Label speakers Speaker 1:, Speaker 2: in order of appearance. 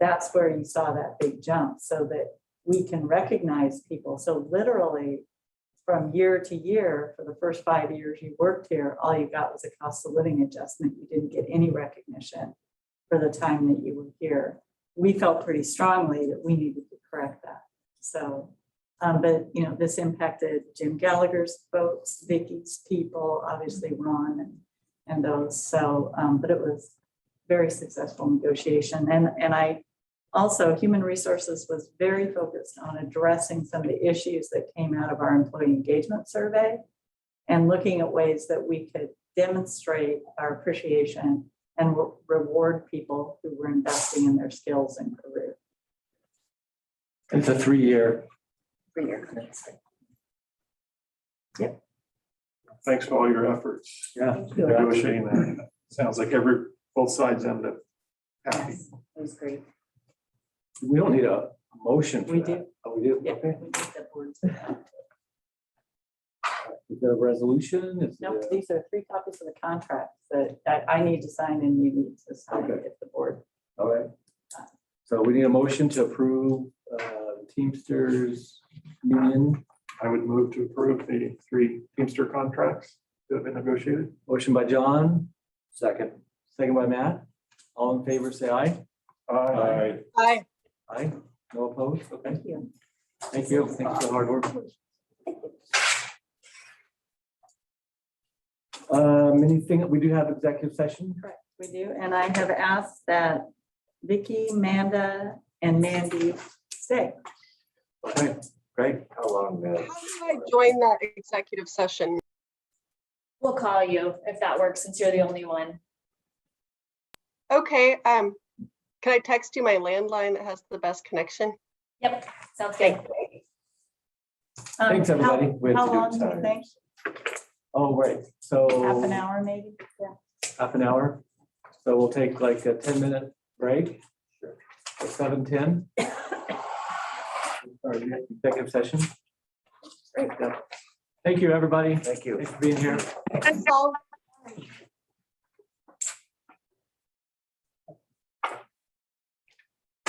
Speaker 1: that's where you saw that big jump, so that we can recognize people. So literally, from year to year, for the first five years you worked here, all you got was a cost of living adjustment. You didn't get any recognition for the time that you were here. We felt pretty strongly that we needed to correct that. So, um, but, you know, this impacted Jim Gallagher's folks, Vicky's people, obviously Ron and, and those. So, um, but it was very successful negotiation. And, and I also, Human Resources was very focused on addressing some of the issues that came out of our employee engagement survey and looking at ways that we could demonstrate our appreciation and re- reward people who were investing in their skills and career.
Speaker 2: It's a three-year.
Speaker 3: Thanks for all your efforts
Speaker 2: Yeah.
Speaker 3: negotiating that. Sounds like every, both sides ended happy.
Speaker 1: Yes, It was great.
Speaker 2: We don't need a motion for
Speaker 1: We
Speaker 2: that.
Speaker 1: do.
Speaker 2: Oh, we do?
Speaker 1: Yeah. we
Speaker 2: Okay.
Speaker 1: need the board's input.
Speaker 2: Is there a resolution? Is
Speaker 1: Nope,
Speaker 2: there-
Speaker 1: these are three copies of the contract that, that I need to sign and you need to sign
Speaker 2: Okay.
Speaker 1: if the board.
Speaker 2: All right. So we need a motion to approve uh, Teamsters Union,
Speaker 3: I would move to approve the three Teamster contracts that have been negotiated.
Speaker 2: motion by John. Second. Second by Matt. All in favor, say aye. Aye.
Speaker 4: Aye.
Speaker 2: Aye. No opposed? Okay,
Speaker 1: Thank you.
Speaker 2: thank you. Thanks for the hard work. Um, anything, we do have executive session?
Speaker 1: Correct, we do. And I have asked that Vicky, Amanda, and Mandy stay.
Speaker 2: Okay, great.
Speaker 5: How long,
Speaker 4: How
Speaker 5: uh,
Speaker 4: did I join that executive session?
Speaker 6: We'll call you if that works, since you're the only one.
Speaker 4: Okay, um, can I text you my landline that has the best connection?
Speaker 6: Yep, sounds good.
Speaker 1: Um,
Speaker 2: Thanks,
Speaker 1: how-
Speaker 2: everybody. We have
Speaker 1: How
Speaker 2: to do it
Speaker 1: long do you
Speaker 2: time.
Speaker 1: think?
Speaker 2: Oh, right, so.
Speaker 1: Half an hour, maybe? Yeah.
Speaker 2: half an hour. So we'll take like a ten minute break. Seven ten. Sorry, executive session. Great. Thank you, everybody.
Speaker 5: thank you.
Speaker 2: Thanks for being here.
Speaker 4: That's all.